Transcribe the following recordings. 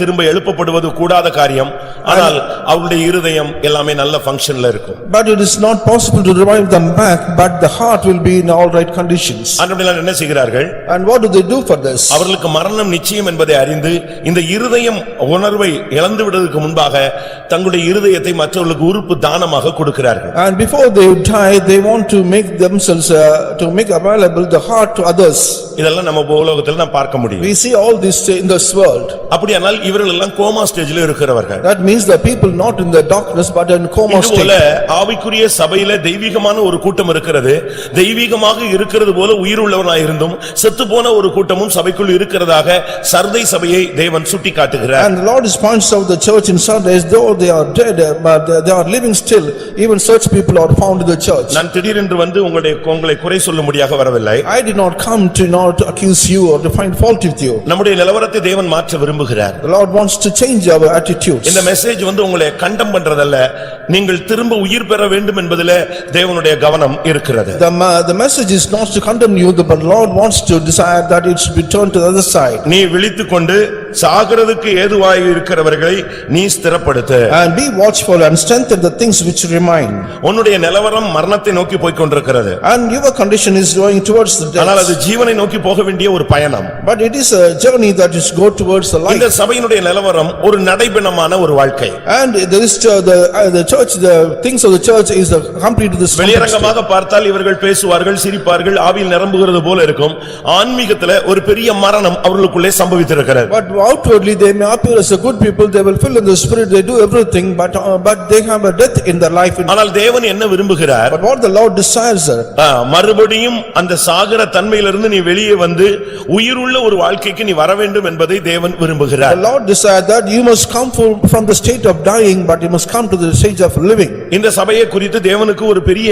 திரும்ப எழுப்பப்படுவது கூடாத காரியம் ஆனால் அவருடைய இருதயம் எல்லாமே நல்ல ஃபங்க்ஷன்ல இருக்கும் But it is not possible to revive them back, but the heart will be in all right conditions. அன்றைய என்ன செய்கிறார்கள் And what do they do for this? அவர்களுக்கு மரணம் நிச்சயம் என்பதை அறிந்து இந்த இருதயம் உணர்வை இழந்து விடுவதற்கு முன்பாக தங்களுடைய இருதயத்தை மற்றவர்களுக்கு உறுப்பு தானமாக கொடுக்கிறார்கள் And before they die, they want to make themselves, uh, to make available the heart to others. இதெல்லாம் நம்ம உலகத்தில் நாம் பார்க்க முடியும் We see all this in this world. அப்படியானால் இவர்கள் எல்லாம் கோமா ஸ்டேஜில் இருக்கிறவர்கள் That means the people not in the darkness but in coma இதுபோல state. ஆவிக்குரிய சபையில தெய்வீகமான ஒரு கூட்டம் இருக்கிறது தெய்வீகமாக இருக்கிறது போல உயிருள்ளவனாயிருந்தும் செத்துப்போன ஒரு கூட்டமும் சபைக்குள் இருக்கிறதாக சர்தை சபையை தேவன் சுட்டிக்காட்டுகிறார் And the Lord is points out the church in Sundays, though they are dead, uh, but they- they are living still. Even such people are found in the church. நான் திடீரென்று வந்து உங்களுடைய உங்களை குறை சொல்லும்படியாக வரவில்லை I did not come to not accuse you or to find fault with you. நம்முடைய நிலவரத்தை தேவன் மாற்ற விரும்புகிறார் The Lord wants to change our attitudes. இந்த மெசேஜ் வந்து உங்களை கண்டம் பண்றதல்ல நீங்கள் திரும்ப உயிர் பெற வேண்டும் என்பதில தேவனுடைய கவனம் இருக்கிறது The ma- the message is not to condemn you, but Lord wants to desire that it should be turned to the other side. நீ விழித்துக்கொண்டு சாகிறதுக்கு ஏதுவாய் இருக்கிறவர்களை நீ ஸ்திரப்படுத்து And be watchful and strengthen the things which remain. உன்னுடைய நிலவரம் மரணத்தை நோக்கி போய்க் கொண்டிருக்கிறது And your condition is going towards the ஆனால் அது death. ஜீவனை நோக்கி போக வேண்டிய ஒரு பயணம் But it is a journey that is go towards the இந்த light. சபையினுடைய நிலவரம் ஒரு நடைபெணமான ஒரு வாழ்க்கை And there is uh, the, uh, the church, the things of the church is the complete to this. context. வெளியரங்கமாக பார்த்தால் இவர்கள் பேசுவார்கள் சிரிப்பார்கள் ஆவியில் நிரம்புகிறது போல இருக்கும் ஆன்மீகத்துல ஒரு பெரிய மரணம் அவர்களுக்குள்ளே சம்பவித்திருக்கிறது But outwardly, they may appear as a good people, they will fill in the spirit, they do everything, but uh, but they have a death in their life. ஆனால் தேவன் என்ன விரும்புகிறார் But what the Lord desires, uh, ஆ, மறுபடியும் அந்த சாகர தன்மையிலிருந்து நீ வெளியே வந்து உயிருள்ள ஒரு வாழ்க்கைக்கு நீ வர வேண்டும் என்பதை தேவன் The விரும்புகிறார் Lord desired that you must come from from the state of dying, but you must come to the stage of living. இந்த சபையை குறித்து தேவனுக்கு ஒரு பெரிய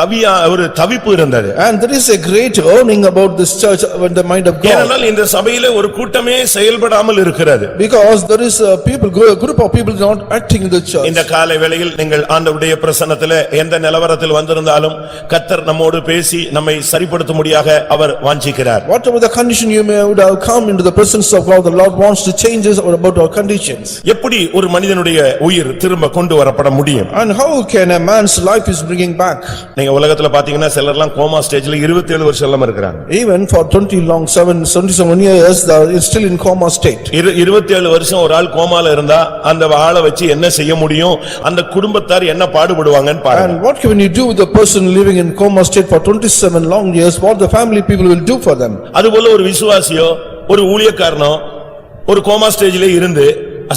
தவியா ஒரு தவிப்பு இருந்தது And there is a great earning about this church in the mind of God. ஏனென்றால் இந்த சபையில ஒரு கூட்டமே செயல்படாமல் இருக்கிறது Because there is a people, a group of people not acting in the church. இந்த காலை வேளையில் நீங்கள் ஆண்டவருடைய பிரசன்னத்திலே எந்த நிலவரத்தில் வந்திருந்தாலும் கத்தர் நம்மோடு பேசி நம்மை சரிப்படுத்த முடியாக அவர் வாஞ்சிக்கிறார் Whatever the condition you may would have come into the presence of God, the Lord wants to change us or about our conditions. எப்படி ஒரு மனிதனுடைய உயிர் திரும்ப கொண்டு வரப்பட முடியும் And how can a man's life is bringing back? நீங்க உலகத்துல பாத்தீங்கன்னா சிலர்லாம் கோமா ஸ்டேஜ்ல 27 வருஷம் எல்லாம் இருக்கிறாங்க Even for twenty long, seven, seventy-seven years, they are still in coma state. இரு இருபத்தேழு வருஷம் ஒரு ஆள் கோமால இருந்தா அந்த ஆளை வச்சு என்ன செய்ய முடியும் அந்த குடும்பத்தார் என்ன பாடுபடுவாங்கன்னு பாருங்க And what can you do with the person living in coma state for twenty-seven long years, what the family people will do for them? அதுபோல ஒரு விசுவாசியோ ஒரு ஊழியக்காரனோ ஒரு கோமா ஸ்டேஜ்ல இருந்து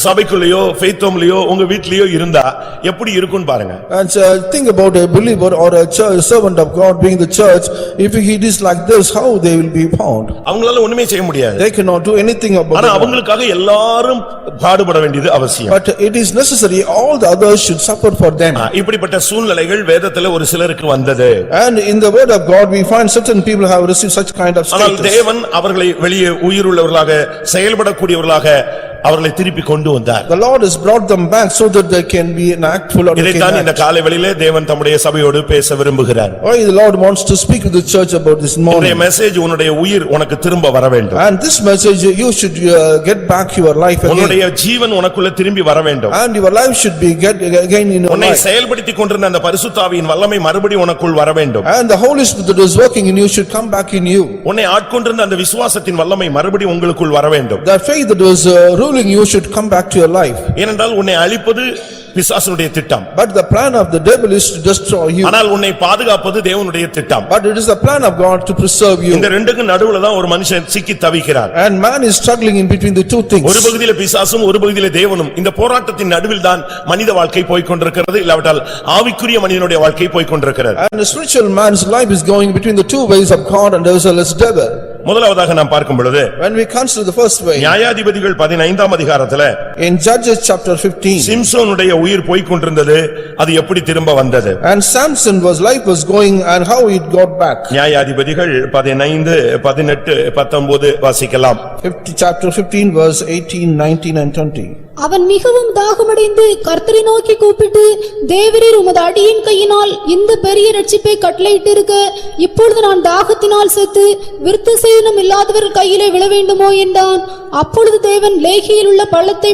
சபைக்குள்ளேயோ ஃபெய்த்தோம்லயோ உங்க வீட்லயோ இருந்தா எப்படி இருக்கும்னு பாருங்க And uh, think about a believer or a church- servant of God being the church, if he is like this, how they will be found? அவங்களால ஒண்ணுமே செய்ய முடியாது They cannot do anything ஆனா about it. அவங்களுக்காக எல்லாரும் பாடுபட வேண்டியது அவசியம் But it is necessary, all the others should suffer for them. ஆ, இப்படிப்பட்ட சூழ்நிலைகள் வேதத்துல ஒரு சிலருக்கு வந்தது And in the word of God, we find certain people have received such kind of ஆனால் status. தேவன் அவர்களை வெளியே உயிருள்ளவர்களாக செயல்படக்கூடியவர்களாக அவர்களை திருப்பி கொண்டு வந்தார் The Lord has brought them back so that they can be an actful or they can இதைத்தான் இந்த act. காலை வெளியிலே தேவன் தம்முடைய சபையோடு பேச விரும்புகிறார் Why the Lord wants to speak with the church about this morning. உன்னுடைய மெசேஜ் உன்னுடைய உயிர் உனக்கு திரும்ப வர வேண்டும் And this message, you should uh, get back your life again. உன்னுடைய ஜீவன் உனக்குள்ள திரும்பி வர வேண்டும் And your life should be get again in your உன்னை life. செயல்படுத்திக் கொண்டிருந்த அந்த பரிசுத்தாவியின் வல்லமை மறுபடி உனக்குள் வர வேண்டும் And the Holy Spirit that is working in you should come back in you. உன்னை ஆட்கொண்டிருந்த அந்த விசுவாசத்தின் வல்லமை மறுபடி உங்களுக்குள் வர வேண்டும் The faith that was uh, ruling you should come back to your life. ஏனென்றால் உன்னை அழிப்பது பிசாசனுடைய திட்tam But the plan of the devil is to destroy you. ஆனால் உன்னை பாதுகாப்பது தேவனுடைய திட்டம் But it is the plan of God to preserve இந்த you. ரெண்டுக்கு நடுவுல தான் ஒரு மனுஷன் சிக்கி தவிக்கிறார் And man is struggling in between the two ஒரு things. பகுதியில பிசாசும் ஒரு பகுதியில தேவனும் இந்த போராட்டத்தின் நடுவில் தான் மனித வாழ்க்கை போய்க் கொண்டிருக்கிறது இல்லாவிட்டால் ஆவிக்குரிய மனிதனுடைய வாழ்க்கை போய்க் கொண்டிருக்கிறது And the spiritual man's life is going between the two ways of God and as well as devil. முதலாவதாக நாம் பார்க்கும் பொழுது When we consider the first way, நியாயாதிபதிகள் பதினைந்தாம் அதிகாரத்துல in Judges chapter fifteen, சிம்சோனுடைய உயிர் போய்க் கொண்டிருந்தது அது எப்படி திரும்ப வந்தது and Samson was life was going and how it got back. நியாயாதிபதிகள் பதினைந்து பதினெட்டு பத்தொன்பது வாசிக்கலாம் Fifty, chapter fifteen verse eighteen, nineteen and twenty. அவன் மிகவும் தாகமடைந்து கர்த்தரை நோக்கி கூப்பிட்டு தேவரீர் உமது அடியின் கையினால் இந்த பெரிய ரட்சிப்பை கட்டளையிட்டிருக்க இப்பொழுது நான் தாகத்தினால் செத்து விருத்த சேதனம் இல்லாதவர்கள் கையிலே விழ வேண்டுமோ என்றான் அப்பொழுது தேவன் லேகியில் உள்ள பள்ளத்தை